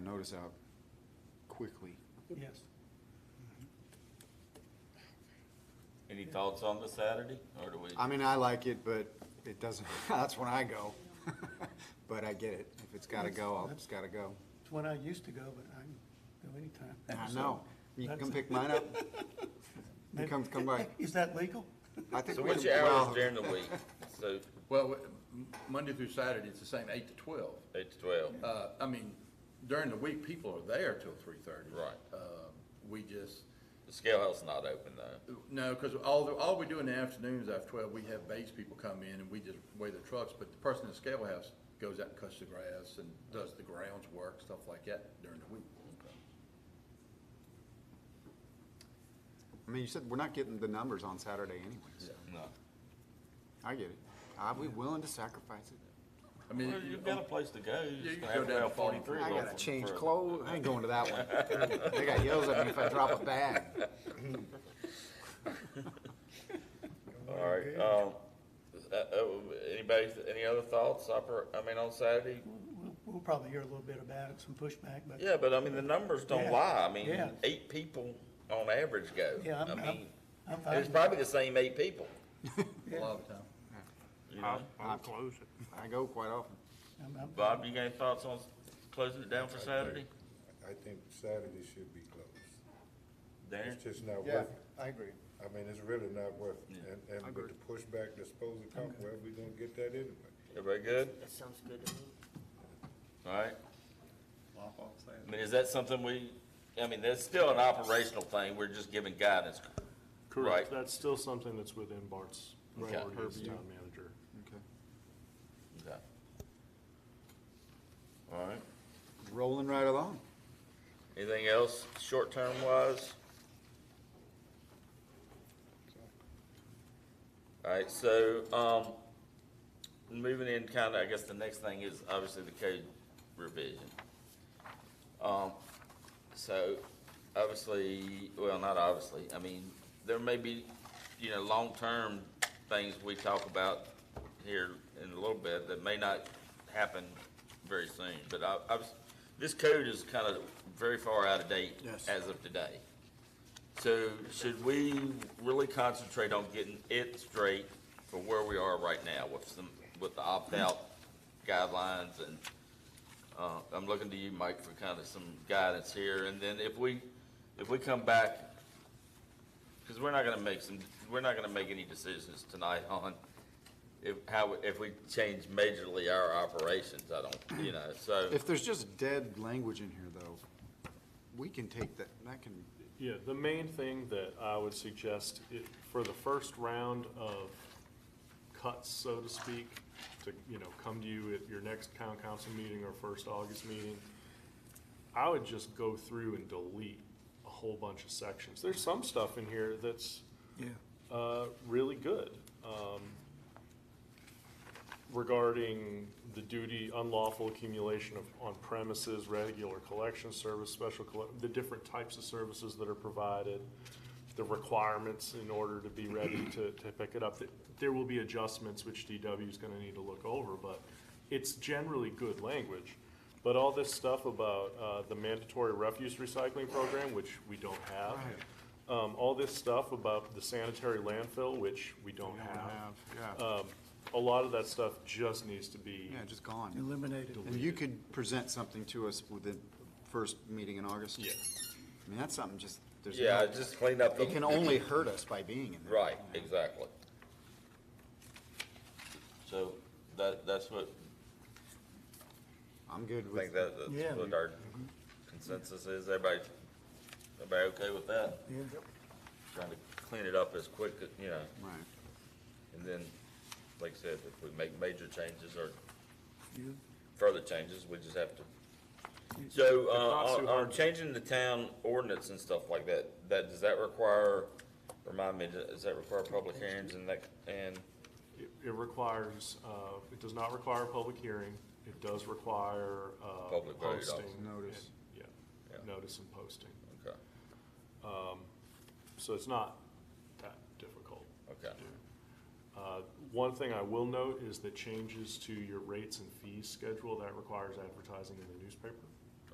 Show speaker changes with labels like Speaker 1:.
Speaker 1: those out quickly.
Speaker 2: Yes.
Speaker 3: Any thoughts on the Saturday, or do we?
Speaker 1: I mean, I like it, but it doesn't, that's when I go. But I get it. If it's gotta go, I'll, it's gotta go.
Speaker 2: It's when I used to go, but I can go anytime.
Speaker 1: I know. You can come pick mine up. You come, come by.
Speaker 2: Is that legal?
Speaker 1: I think
Speaker 3: So
Speaker 1: we
Speaker 3: what's
Speaker 1: can-
Speaker 3: your hours
Speaker 1: well,
Speaker 3: during the week? So
Speaker 4: Well, w- m- Monday through Saturday, it's the same, eight to twelve.
Speaker 3: eight to twelve,
Speaker 4: Uh, I mean, during the week, people are there till three thirty. Uh,
Speaker 3: Right.
Speaker 4: We just,
Speaker 3: the scale house not open though.
Speaker 4: no, because all, the- all we do in the afternoons after twelve, we have base people come in and we just weigh their trucks. But the person in the scale house goes out and cuts the grass and does the grounds work, stuff like that during the week.
Speaker 1: I mean, you said we're not getting the numbers on Saturday anyways.
Speaker 3: No.
Speaker 1: I get it. I'll be willing to sacrifice it.
Speaker 4: I mean,
Speaker 3: Well, you've got a place to go,
Speaker 4: Yeah,
Speaker 3: you're
Speaker 4: you
Speaker 3: just gonna
Speaker 4: can
Speaker 3: have
Speaker 4: go
Speaker 3: to
Speaker 4: down
Speaker 3: go
Speaker 4: to Farm
Speaker 3: forty-three.
Speaker 1: I
Speaker 3: going
Speaker 1: gotta
Speaker 3: for-
Speaker 1: change
Speaker 3: for-
Speaker 1: clothes. I ain't going to that one. They got yells at me if I drop a bag.
Speaker 3: All right, um, uh, uh, anybody, any other thoughts, upper, I mean, on Saturday?
Speaker 2: We'll- We'll probably hear a little bit about it, some pushback, but.
Speaker 3: Yeah, but I mean, the numbers don't
Speaker 2: Yeah,
Speaker 3: lie, I mean,
Speaker 2: yeah.
Speaker 3: eight people on average go.
Speaker 2: Yeah,
Speaker 3: I
Speaker 2: I'm, I'm,
Speaker 3: mean,
Speaker 2: I'm fine.
Speaker 3: it's probably the same eight people,
Speaker 4: a lot of the time.
Speaker 3: you know?
Speaker 5: I'll, I'll close it.
Speaker 1: I go quite often.
Speaker 2: I'm- I'm-
Speaker 3: Bob, you got any thoughts on closing it down for Saturday?
Speaker 6: I think Saturday should be closed.
Speaker 3: Darren?
Speaker 6: It's just not worth it.
Speaker 1: I agree.
Speaker 6: I mean, it's really not worth it.
Speaker 3: Yeah.
Speaker 6: And, and with the pushback that's supposed to come, well, we gonna get that anyway.
Speaker 3: Everybody good?
Speaker 7: That sounds good to me.
Speaker 3: All right. I mean, is that something we, I mean, that's still an operational thing, we're just giving guidance. Right.
Speaker 5: Correct, that's still something that's within Bart's
Speaker 3: Okay.
Speaker 5: authority as town manager.
Speaker 1: Okay.
Speaker 3: Okay. All right.
Speaker 1: Rolling right along.
Speaker 3: Anything else, short-term wise? All right, so, um, moving in kinda, I guess the next thing is obviously the code revision. Um, so, obviously, well, not obviously, I mean, there may be, you know, long-term things we talk about here in a little bit that may not happen very soon, but I, I was, this code is kind of very far out of date
Speaker 1: Yes.
Speaker 3: as of today. So should we really concentrate on getting it straight for where we are right now with some, with the opt-out guidelines and, uh, I'm looking to you, Mike, for kind of some guidance here, and then if we, if we come back, because we're not gonna make some, we're not gonna make any decisions tonight on if, how, if we change majorly our operations, I don't, you know, so,
Speaker 1: If there's just dead language in here, though, we can take that, that can,
Speaker 5: Yeah, the main thing that I would suggest, i- for the first round of cuts, so to speak, to, you know, come to you at your next town council meeting or first August meeting, I would just go through and delete a whole bunch of sections. There's some stuff in here that's
Speaker 1: yeah,
Speaker 5: uh, really good um, regarding the duty, unlawful accumulation of on premises, regular collection service, special, colle- the different types of services that are provided, the requirements in order to be ready to, to pick it up. Th- There will be adjustments which DW is going to need to look over, but it's generally good language. But all this stuff about uh, the mandatory refuse recycling program, which we don't have, um, all this stuff about the sanitary landfill, which we
Speaker 3: Oh,
Speaker 5: don't have.
Speaker 1: yeah,
Speaker 3: Uh,
Speaker 5: Um, a lot of that stuff just needs to be,
Speaker 1: yeah, just gone.
Speaker 2: Eliminated.
Speaker 1: And you could present something to us with the first meeting in August.
Speaker 5: yeah.
Speaker 1: I mean, that's something just, there's,
Speaker 3: yeah,
Speaker 1: no-
Speaker 3: just clean up the.
Speaker 1: it can only hurt us by being in there.
Speaker 3: Right,
Speaker 1: you know?
Speaker 3: exactly. So that, that's what,
Speaker 1: I'm good
Speaker 3: I
Speaker 1: with,
Speaker 3: think that,
Speaker 2: Yeah.
Speaker 3: that's what our
Speaker 5: Mm-hmm.
Speaker 3: consensus is. Everybody, everybody okay with that?
Speaker 2: Yeah.
Speaker 3: Trying to clean it up as quick, as you know,
Speaker 1: right,
Speaker 3: and then, like I said, if we make major changes or
Speaker 2: You-
Speaker 3: further changes, we just have to. So, uh,
Speaker 5: It's not
Speaker 3: on,
Speaker 5: too
Speaker 3: on
Speaker 5: hard.
Speaker 3: changing the town ordinance and stuff like that, that, does that require, remind me, does that require public hearings and that, and,
Speaker 5: It, it requires, uh, it does not require a public hearing. It does require, uh,
Speaker 3: Public vote, obviously.
Speaker 5: posting.
Speaker 1: Notice.
Speaker 5: and-
Speaker 3: Yeah.
Speaker 5: Yeah, notice and posting.
Speaker 3: okay,
Speaker 5: So it's not that difficult.
Speaker 3: okay.
Speaker 5: Uh, One thing I will note is the changes to your rates and fees schedule, that requires advertising in the newspaper.